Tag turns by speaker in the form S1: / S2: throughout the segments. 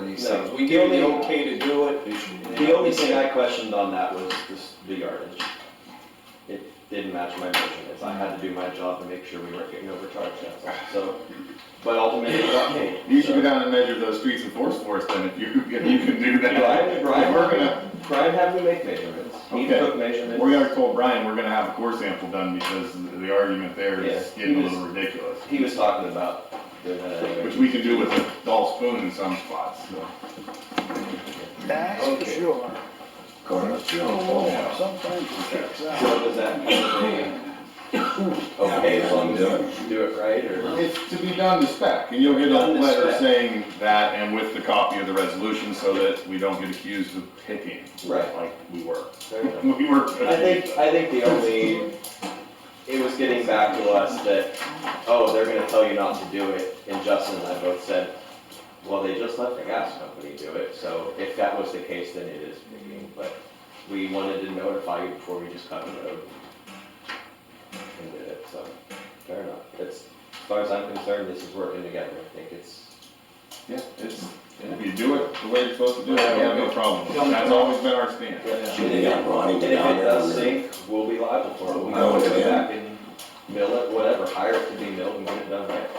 S1: things.
S2: No,
S1: We gave
S2: the
S1: you the
S2: only-
S1: okay to do it. you should-
S2: The only thing I questioned on that was this, the yardage. It didn't match my motion, as I had to do my job to make sure we weren't getting overcharged, that's all, so, but ultimately, it got paid.
S3: You should go
S2: so.
S3: down and measure those streets and force for us then, if you, if you can do that.
S2: Brian, Brian,
S3: We're gonna,
S2: Brian had me make measurements, he
S3: Okay.
S2: took measurements.
S3: we're gonna tell Brian, we're gonna have a core sample done, because the argument there is
S2: Yeah.
S3: getting a little ridiculous.
S2: He was talking about uh, doing that anyway.
S3: Which we can do with a dull spoon in some spots, so.
S4: That's for
S1: Okay.
S4: sure.
S2: Corner.
S4: Oh, sometimes it checks out.
S2: So does that mean they, okay, as long as you do it right, or?
S3: It's to be done to spec, and you'll get a
S2: Done to
S3: letter
S2: spec.
S3: saying that, and with the copy of the resolution, so that we don't get accused of picking.
S2: Right.
S3: Like we were.
S2: Fair enough.
S3: We were.
S2: I think, I think the only, it was getting back to us that, oh, they're gonna tell you not to do it, and Justin and I both said, well, they just let the gas company do it, so if that was the case, then it is picking, but we wanted to notify you before we just cut the road. And did it, so, fair enough, it's, as far as I'm concerned, this is working together, I think it's,
S3: Yeah, it's, if you do it the way you're supposed to do it, I have no problem. with it. That's always been our stance.
S5: Should they got Ronnie
S2: And
S5: to
S2: if
S5: down
S2: it
S5: there?
S2: does sink, we'll be liable for it, we'll
S5: No,
S2: have to
S5: it's
S2: go
S5: in.
S2: back and mill it, whatever, hire it to be milled and get it done right.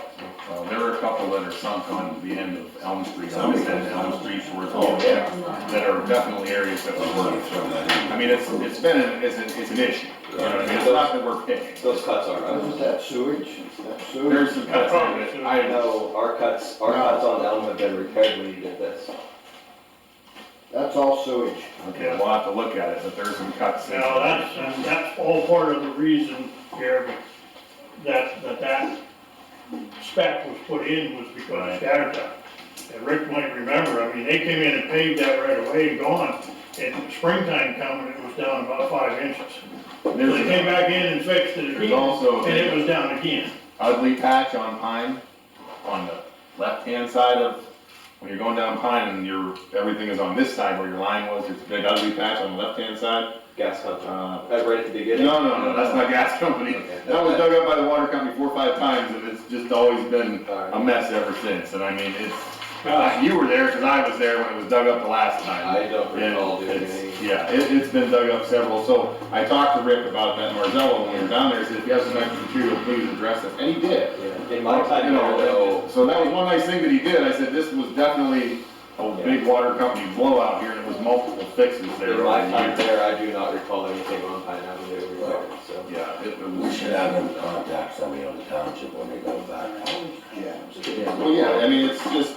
S3: Well, Uh, there were a couple that are sunk on the end of Elm Street,
S5: Elm
S3: on this
S5: Street.
S3: end of Elm Street towards.
S5: Oh, yeah.
S3: That are definitely areas that
S5: I'm
S3: would
S5: gonna
S3: work.
S5: throw that in.
S3: I mean, it's, it's been, an- it's an, it's an issue. You know what I mean? It's not that we're picking.
S2: Those cuts are,
S6: Isn't
S2: us.
S6: that sewage? Is that sewage?
S3: There's some cuts in it. I
S2: I know, our cuts, our
S6: No.
S2: cuts on Elm have been repaired when you did this.
S6: That's all sewage.
S3: Okay, we'll have to look at it, but there's some cuts. in it.
S7: Now, that's, and that's all part of the reason, Jeremy, that, that that spec was put in was because of scatter time. And Rick might remember, I mean, they came in and paved that right away and gone, and springtime coming, it was down about five inches. So they came
S3: There's
S7: back in and fixed it
S3: there's
S7: again,
S3: also
S7: and it was down again.
S3: ugly patch on Pine, on the left-hand side of, when you're going down Pine and your, everything is on this side where your line was, there's a big ugly patch on the left-hand side.
S2: Gas company,
S3: Uh,
S2: that's right at the
S3: No,
S2: beginning.
S3: no, no, that's not gas company.
S2: Okay.
S3: That was dug up by the water company four or five times and it's just always been a
S2: Alright.
S3: mess ever since. And I mean, it's, uh, you were there because I was there when it was dug up the last time.
S2: I don't recall
S3: Yeah,
S2: doing
S3: it's-
S2: any.
S3: Yeah, it, it's been dug up several, so I talked to Rick about that in Marzella when we were down there, he said, if you have some extra material, please address it, and he did.
S2: Yeah. In my time,
S3: You
S2: no,
S3: know,
S2: no,
S3: So that was one nice thing that he did, I said, this was definitely a big water company blowout here, and it was multiple fixes there.
S2: in my
S3: over the
S2: time
S3: years.
S2: there, I do not recall anything on Pine Avenue repaired, so.
S3: Yeah, it it
S5: We
S3: was,
S5: should have them contact somebody on the township when they go back.
S6: Jams.
S3: well, yeah, I mean, it's just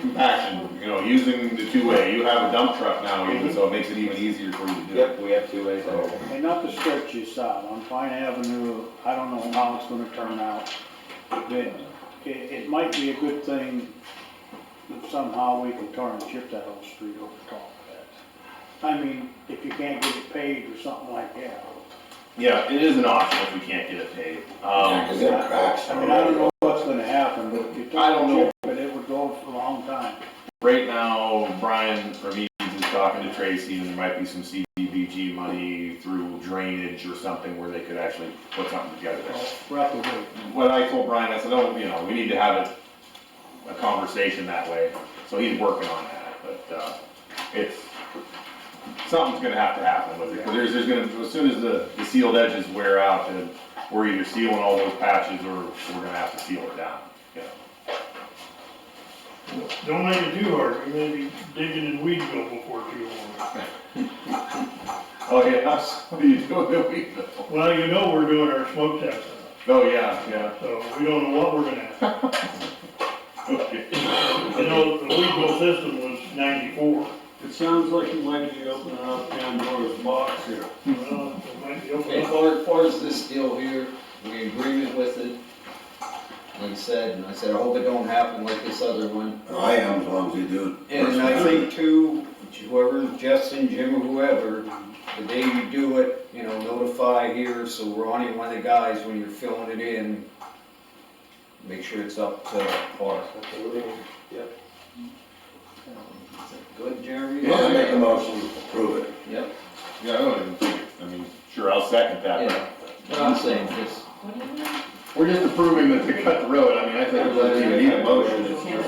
S3: compaction, you know, using the two-way, you have a dump truck now, even, so it makes it even easier for you to do. it.
S2: Yep, we have two ways there.
S4: And not to stretch this out, on Pine Avenue, I don't know how it's gonna turn out. Then, it, it might be a good thing if somehow we can turn and chip that whole street over top of that. I mean, if you can't get it paved or something like that.
S3: Yeah, it is an option if we can't get it paved.
S5: Yeah,
S3: Um,
S5: 'cause they're cracks.
S4: I mean, I don't know what's gonna happen, but if you
S3: I
S4: turn
S3: don't
S4: and
S3: know.
S4: chip it, it would go for a long time.
S3: Right now, Brian Ramirez is talking to Tracy, and there might be some CDBG money through drainage or something where they could actually put something together.
S4: We're out the way.
S3: What I told Brian, I said, oh, you know, we need to have a, a conversation that way, so he's working on that, but, uh, it's, something's gonna have to happen with it, 'cause there's, there's gonna, as soon as the, the sealed edges wear out, then we're either sealing all those patches, or we're gonna have to seal it down, you know?
S7: Don't make it too hard, we may be digging in Weedville before too long.
S3: Oh, yeah, what are you doing that week though?
S7: Well, you know, we're doing our smoke test,
S3: Oh, yeah, yeah,
S7: so we don't know what we're gonna have.
S3: okay.
S7: You know, the legal system was ninety-four.
S8: It sounds like you might be opening up Pandora's box here.
S7: Well, it might be open
S1: As
S7: up.
S1: far, as far as this deal here, we agreement with it, like I said, and I said, I hope it don't happen like this other one.
S5: Oh, I am, as long as you do it.
S1: And I think too, whoever, Justin, Jim, or whoever, the day you do it, you know, notify here, so Ronnie, one of the guys, when you're filling it in, make sure it's up to par.
S2: Absolutely.
S1: Good, Jeremy?
S5: Yeah, make a motion, to approve it.
S1: Yep,
S3: Yeah, I don't even think, I mean, sure, I'll second that,
S1: yeah, but I'm saying, just,
S3: We're just approving that they cut the road, I mean, I think we don't even need a motion.